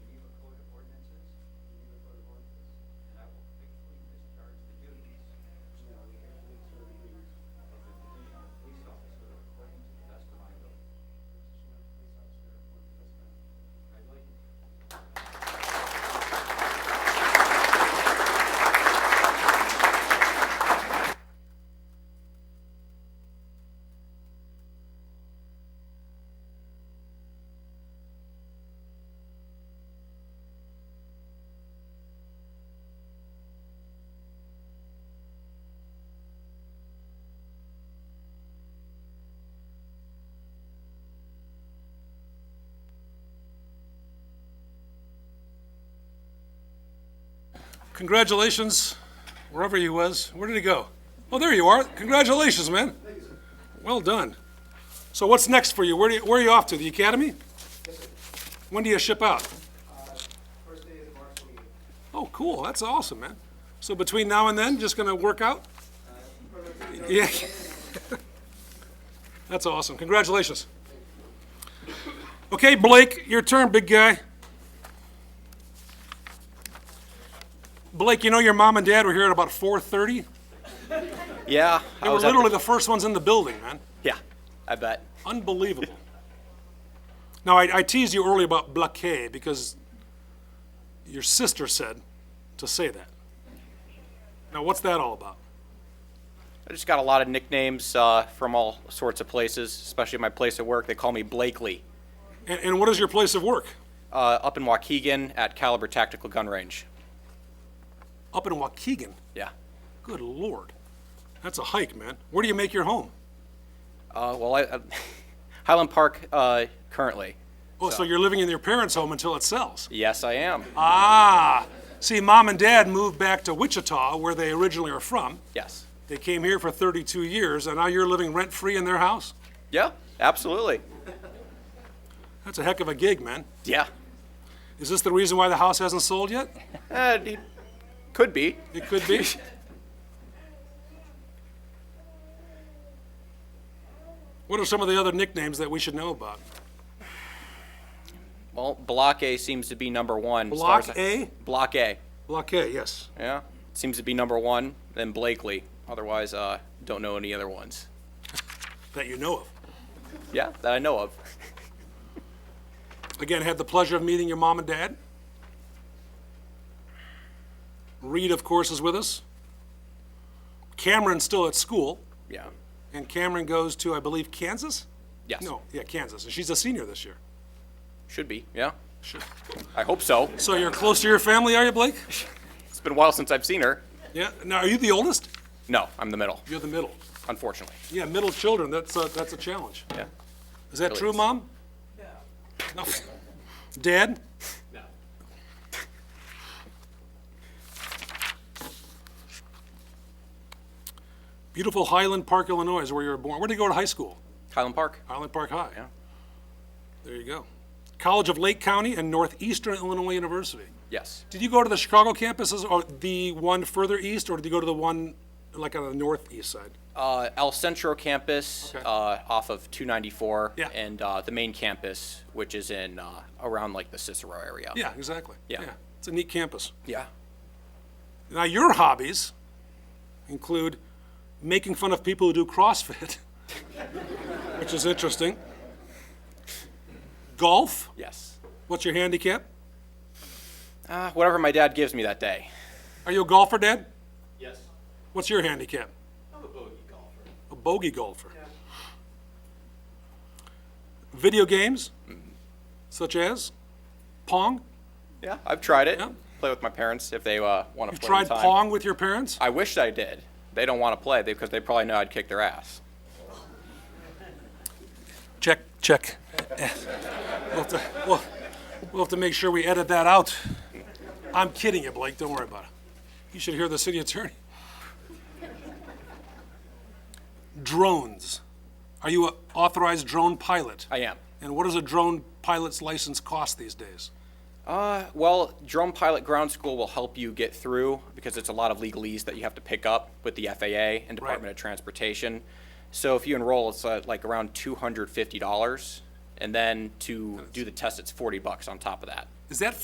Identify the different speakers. Speaker 1: congratulations, wherever he was. Where did he go? Oh, there you are. Congratulations, man. Well done. So what's next for you? Where, do you, where are you off to? The academy? When do you ship out?
Speaker 2: First day of the March meeting.
Speaker 1: Oh, cool. That's awesome, man. So between now and then, just gonna work out? Yeah. That's awesome. Congratulations. Okay, Blake, your turn, big guy. Blake, you know your mom and dad were here at about 4:30.
Speaker 3: Yeah, I
Speaker 1: They were
Speaker 3: was at the-
Speaker 1: literally the first ones in the building, man.
Speaker 3: yeah, I bet.
Speaker 1: Unbelievable. Now, I, I teased you earlier about Blaquet because your sister said to say that. Now, what's that all about?
Speaker 3: I just got a lot of nicknames uh, from all sorts of places, especially my place of work. They call me Blakely.
Speaker 1: And, and what is your place of work?
Speaker 3: Uh, up in Waukegan at Caliber Tactical Gun Range.
Speaker 1: Up in Waukegan.
Speaker 3: Yeah.
Speaker 1: Good lord. That's a hike, man. Where do you make your home?
Speaker 3: Uh, well, I, I, Highland Park uh, currently.
Speaker 1: Oh, so you're living in your parents' home until it sells.
Speaker 3: Yes, I am.
Speaker 1: Ah. See, mom and dad moved back to Wichita, where they originally are from.
Speaker 3: yes.
Speaker 1: They came here for 32 years, and now you're living rent free in their house?
Speaker 3: Yeah, absolutely.
Speaker 1: That's a heck of a gig, man.
Speaker 3: Yeah.
Speaker 1: Is this the reason why the house hasn't sold yet?
Speaker 3: Uh, it could be.
Speaker 1: It could be. what are some of the other nicknames that we should know about?
Speaker 3: Well, Block A seems to be number one. as far
Speaker 1: Block
Speaker 3: as I-
Speaker 1: A?
Speaker 3: Block A.
Speaker 1: Block A, yes.
Speaker 3: Yeah. Seems to be number one. Then Blakely. Otherwise, uh, don't know any other ones.
Speaker 1: That you know of.
Speaker 3: Yeah, that I know of.
Speaker 1: Again, had the pleasure of meeting your mom and dad. Reed, of course, is with us. Cameron's still at school,
Speaker 3: Yeah.
Speaker 1: and Cameron goes to, I believe, Kansas?
Speaker 3: Yes.
Speaker 1: No, yeah, Kansas. And she's a senior this year.
Speaker 3: Should be. Yeah.
Speaker 1: Sure.
Speaker 3: I hope so.
Speaker 1: So you're close to your family, are you, Blake?
Speaker 3: It's been a while since I've seen her.
Speaker 1: Yeah. Now, are you the oldest?
Speaker 3: No, I'm the middle,
Speaker 1: You're the middle.
Speaker 3: unfortunately.
Speaker 1: Yeah, middle children, that's a, that's a challenge.
Speaker 3: Yeah.
Speaker 1: Is that
Speaker 3: Really
Speaker 1: true,
Speaker 3: is.
Speaker 1: Mom? No. Dad? Beautiful Highland Park, Illinois is where you were born. Where did you go to high school?
Speaker 3: Highland Park.
Speaker 1: Highland Park High.
Speaker 3: Yeah.
Speaker 1: There you go. College of Lake County and Northeastern Illinois University.
Speaker 3: Yes.
Speaker 1: Did you go to the Chicago campuses or the one further east, or did you go to the one like on the northeast side?
Speaker 3: Uh, El Centro campus
Speaker 1: Okay.
Speaker 3: uh, off of 294
Speaker 1: Yeah.
Speaker 3: and uh, the main campus, which is in uh, around like the Cicero area.
Speaker 1: Yeah, exactly.
Speaker 3: Yeah.
Speaker 1: It's a neat campus.
Speaker 3: Yeah.
Speaker 1: Now, your hobbies include making fun of people who do CrossFit, which is interesting. Golf.
Speaker 3: Yes.
Speaker 1: What's your handicap?
Speaker 3: Uh, whatever my dad gives me that day.
Speaker 1: Are you a golfer, Dad?
Speaker 2: Yes.
Speaker 1: What's your handicap?
Speaker 2: I'm a bogey golfer.
Speaker 1: A bogey golfer. Video games,
Speaker 3: Mm-hmm.
Speaker 1: such as Pong.
Speaker 3: Yeah. I've tried it.
Speaker 1: Yeah.
Speaker 3: Play with my parents if they uh, want to play.
Speaker 1: Tried
Speaker 3: in time.
Speaker 1: Pong with your parents?
Speaker 3: I wish I did. They don't want to play because they probably know I'd kick their ass.
Speaker 1: Check, check. Eh. We'll have to, we'll, we'll have to make sure we edit that out. I'm kidding you, Blake, don't worry about it. You should hear the city attorney. Drones. Are you an authorized drone pilot?
Speaker 3: I am.
Speaker 1: And what does a drone pilot's license cost these days?
Speaker 3: Uh, well, Drone Pilot Ground School will help you get through because it's a lot of legalese that you have to pick up with the FAA and Department of Transportation. So if you enroll, it's uh, like around two hundred fifty dollars, and then to do the test, it's forty bucks on top of that.
Speaker 1: Is that